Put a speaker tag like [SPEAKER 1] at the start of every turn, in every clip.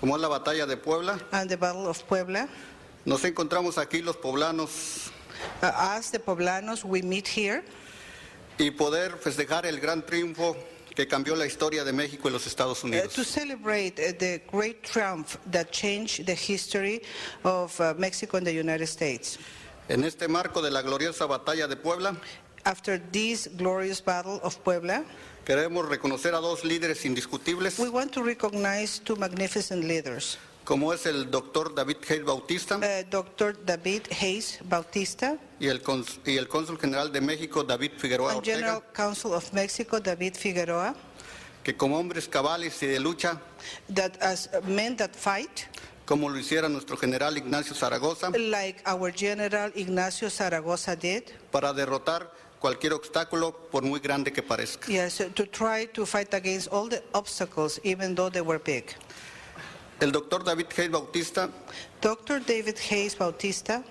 [SPEAKER 1] como es la batalla de Puebla.
[SPEAKER 2] and the Battle of Puebla.
[SPEAKER 1] Nos encontramos aquí los poblanos
[SPEAKER 2] Uh, us, the Poblanos, we meet here uh,
[SPEAKER 1] y poder festejar el gran triunfo que cambió la historia de México y los Estados
[SPEAKER 2] uh, to
[SPEAKER 1] Unidos.
[SPEAKER 2] celebrate uh, the great triumph that changed the history of uh, Mexico and the United States.
[SPEAKER 1] En este marco de la gloriosa batalla de Puebla,
[SPEAKER 2] After this glorious Battle of Puebla,
[SPEAKER 1] queremos reconocer a dos líderes indiscutibles,
[SPEAKER 2] we want to recognize two magnificent leaders.
[SPEAKER 1] como es el doctor David Hale Bautista
[SPEAKER 2] Uh, Dr. David Hayes Bautista
[SPEAKER 1] y el, cons- y el cónsul general de México, David Figueroa
[SPEAKER 2] and General
[SPEAKER 1] Ortega,
[SPEAKER 2] Counsel of Mexico, David Figueroa,
[SPEAKER 1] que como hombres cabales y de lucha,
[SPEAKER 2] that as men that fight,
[SPEAKER 1] como lo hiciera nuestro general Ignacio Zaragoza,
[SPEAKER 2] like our General Ignacio Zaragoza did,
[SPEAKER 1] para derrotar cualquier obstáculo, por muy grande que parezca.
[SPEAKER 2] Yes, to try to fight against all the obstacles, even though they were big.
[SPEAKER 1] El doctor David Hale Bautista
[SPEAKER 2] Dr. David Hayes Bautista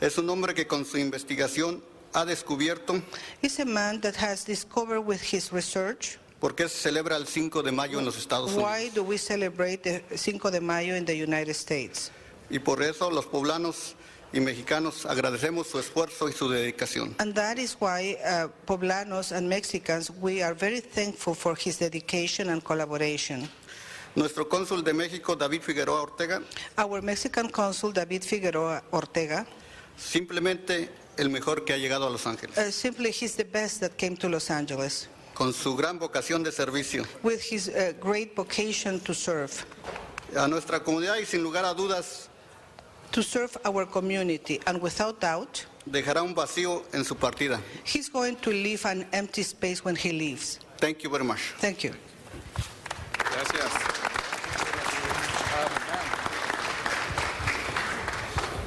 [SPEAKER 1] Es un hombre que con su investigación ha descubierto
[SPEAKER 2] is a man that has discovered with his research
[SPEAKER 1] por qué se celebra el 5 de mayo en los Estados
[SPEAKER 2] why
[SPEAKER 1] Unidos.
[SPEAKER 2] do we celebrate the Cinco de Mayo in the United States.
[SPEAKER 1] Y por eso los poblanos y mexicanos agradecemos su esfuerzo y su dedicación.
[SPEAKER 2] And that is why uh, Poblanos and Mexicans, we are very thankful for his dedication and collaboration.
[SPEAKER 1] Nuestro cónsul de México, David Figueroa Ortega,
[SPEAKER 2] Our Mexican consul, David Figueroa Ortega,
[SPEAKER 1] simplemente el mejor que ha llegado a Los Ángeles,
[SPEAKER 2] uh, simply he's the best that came to Los Angeles
[SPEAKER 1] con su gran vocación de servicio
[SPEAKER 2] with his uh, great vocation to serve.
[SPEAKER 1] a nuestra comunidad y sin lugar a dudas
[SPEAKER 2] to serve our community, and without doubt,
[SPEAKER 1] dejará un vacío en su partida.
[SPEAKER 2] he's going to leave an empty space when he leaves.
[SPEAKER 1] Thank you very much.
[SPEAKER 2] Thank you.
[SPEAKER 3] Gracias.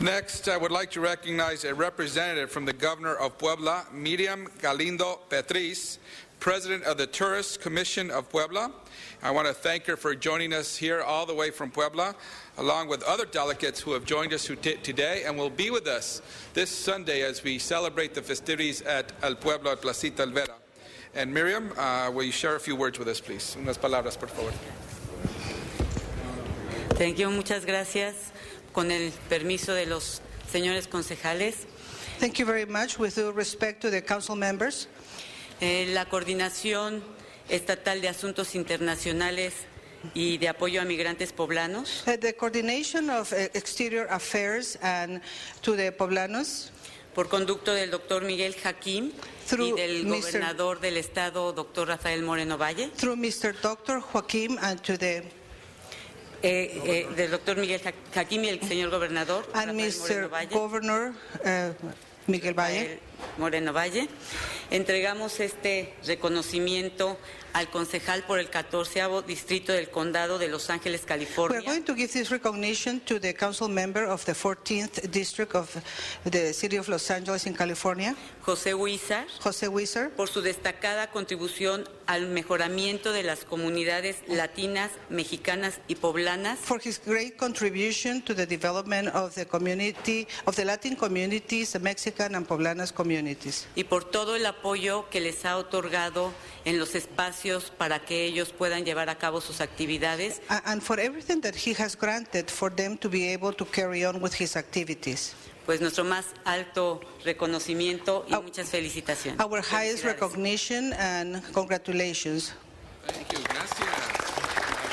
[SPEAKER 3] Next, I would like to recognize a representative from the governor of Puebla, Miriam Galindo Petriz, president of the Tourist Commission of Puebla. I want to thank her for joining us here all the way from Puebla, along with other delegates who have joined us who t- today and will be with us this Sunday as we celebrate the festivities at El Pueblo at Placita Alvera. And Miriam, uh, will you share a few words with us, please? Unas palabras, por favor.
[SPEAKER 4] Thank you, muchas gracias. Con el permiso de los señores concejales,
[SPEAKER 2] Thank you very much. With due respect to the council members,
[SPEAKER 4] eh, la Coordinación Estatal de Asuntos Internacionales y de Apoyo a Migrantes Poblanos
[SPEAKER 2] uh, the coordination of uh, exterior affairs and to the poblanos
[SPEAKER 4] por conducto del doctor Miguel Jaquín y
[SPEAKER 2] Through
[SPEAKER 4] del
[SPEAKER 2] Mr.
[SPEAKER 4] gobernador del estado, doctor Rafael Moreno Valle,
[SPEAKER 2] through Mr. Dr. Joaquim and to the
[SPEAKER 4] eh, eh, del doctor Miguel Ja- Jaquín y el señor gobernador
[SPEAKER 2] and Mr.
[SPEAKER 4] Rafael Moreno Valle.
[SPEAKER 2] Governor uh, Miguel Valle.
[SPEAKER 4] Rafael Moreno Valle. Entregamos este reconocimiento al concejal por el 14 Distrito del Condado de Los Ángeles,
[SPEAKER 2] We are
[SPEAKER 4] California,
[SPEAKER 2] going to give this recognition to the council member of the 14th district of the city of Los Angeles in California,
[SPEAKER 4] José Huizar,
[SPEAKER 2] Jose Weiser,
[SPEAKER 4] por su destacada contribución al mejoramiento de las comunidades latinas, mexicanas y poblanas
[SPEAKER 2] for his great contribution to the development of the community, of the Latin communities, the Mexican and Poblanas communities,
[SPEAKER 4] y por todo el apoyo que les ha otorgado en los espacios para que ellos puedan llevar a cabo sus actividades
[SPEAKER 2] a- and for everything that he has granted for them to be able to carry on with his activities.
[SPEAKER 4] pues nuestro más alto reconocimiento y
[SPEAKER 2] Au-
[SPEAKER 4] muchas felicitaciones.
[SPEAKER 2] Our highest
[SPEAKER 4] Felicidades.
[SPEAKER 2] recognition and congratulations.
[SPEAKER 3] Thank you. Gracias.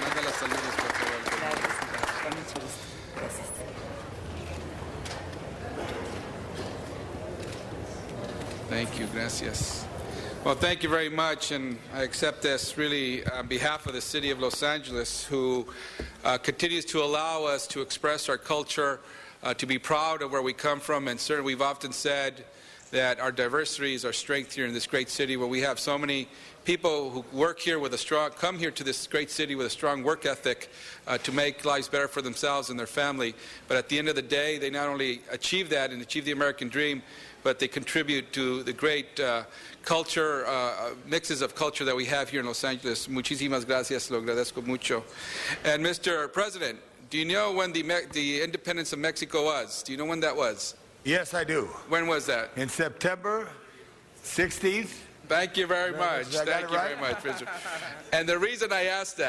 [SPEAKER 3] Manda las saludos, por favor. Thank you, gracias. Well, thank you very much, and I accept this really on behalf of the city of Los Angeles, who uh, continues to allow us to express our culture, uh, to be proud of where we come from, and certainly we've often said that our diversity is our strength here in this great city, where we have so many people who work here with a strong, come here to this great city with a strong work ethic uh, to make lives better for themselves and their family. But at the end of the day, they not only achieve that and achieve the American dream, but they contribute to the great uh, culture, uh, uh, mixes of culture that we have here in Los Angeles. Muchísimas gracias, lo agradezco mucho. And Mr. President, do you know when the, Me- the independence of Mexico was? Do you know when that was?
[SPEAKER 5] Yes, I do.
[SPEAKER 3] When was that?
[SPEAKER 5] In September 16th,
[SPEAKER 3] Thank you very
[SPEAKER 5] Very
[SPEAKER 3] much.
[SPEAKER 5] much. Did I get
[SPEAKER 3] Thank
[SPEAKER 5] it
[SPEAKER 3] you
[SPEAKER 5] right?
[SPEAKER 3] very much, Mr. And the reason I asked that.